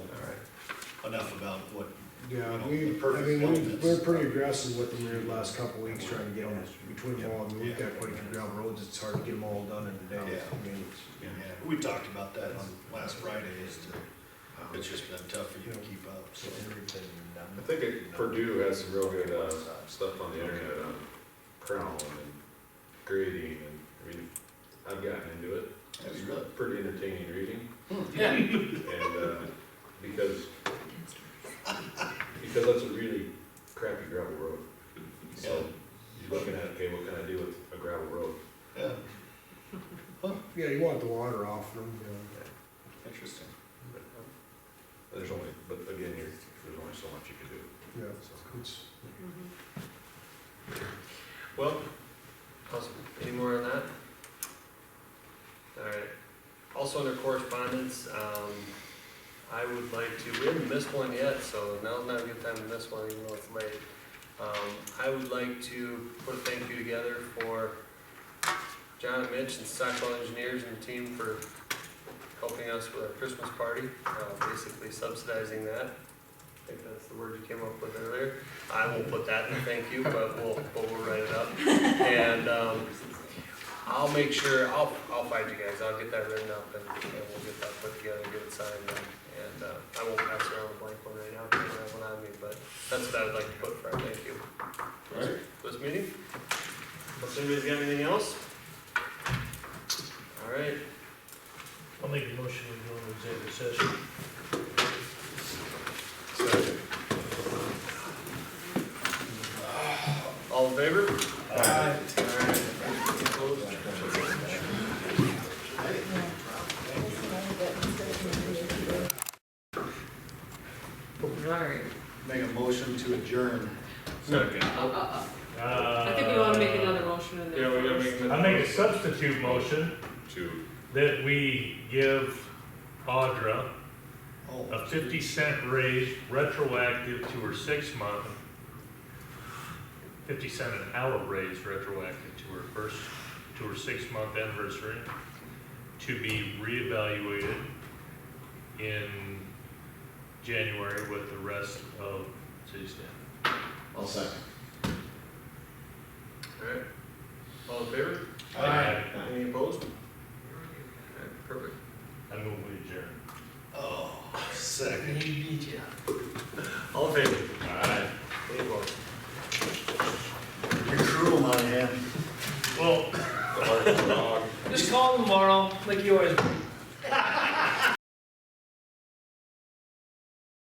enough about what. you Yeah, know, we, the purpose I mean, of we, this. we're pretty aggressive with them here the last couple weeks trying to get them between them all. I mean, we've got quite a few gravel roads, it's hard to get them all done in a day. I mean, Yeah, we talked about that on last Friday, is to, it's just been tough for you to keep up, so. I think it- Purdue has some real good, uh, stuff on the internet on crown and grading and, I mean, I've gotten into it. That's It's good. pretty entertaining reading Hmm. Yeah. and, uh, because, because that's a really crappy gravel road. So you're looking at, okay, what can I do with a gravel road? Yeah, Yeah, you want the water off them, you interesting. But There's only, but again, you're, there's only so much you can do, know, yeah, so. it's, Well, Awesome. Any more on that? All right. Also under correspondence, um, I would like to, we haven't missed one yet, so now's not a good time to miss one, even though it's late. Um, I would like to put a thank you together for John and Mitch and Stockwell Engineers and the team for helping us with our Christmas party, uh, basically subsidizing that. I think that's the word you came up with earlier. I will put that in the thank you, but we'll, but we'll write it up. And, um, I'll make sure, I'll, I'll find you guys, I'll get that written up and, and we'll get that put together, get it signed and, and, uh, I won't pass around the blank one right now, I don't have one on me, but that's what I would like to put for our thank you. Right. This meeting? Unless anybody's got anything else? All right, I'll make a motion to go into executive session. so all in favor? Alright, Make a motion to adjourn. Second. uh, uh, uh, I I think we wanna make another motion in there. Yeah, we gotta make. another- I'll make a substitute motion to that we give Audra Oh, a fifty cent raise retroactive to her six month, fifty cent an hour raise retroactive to her first, to her six month anniversary, to be reevaluated in January with the rest of city staff. I'll second. All right, all in favor? Any opposed? All right, Perfect. I move we adjourn. Oh, second. All in favor? All right. Any opposed? You're cruel, my man. Well, the hard dog. Just call tomorrow, like you always do.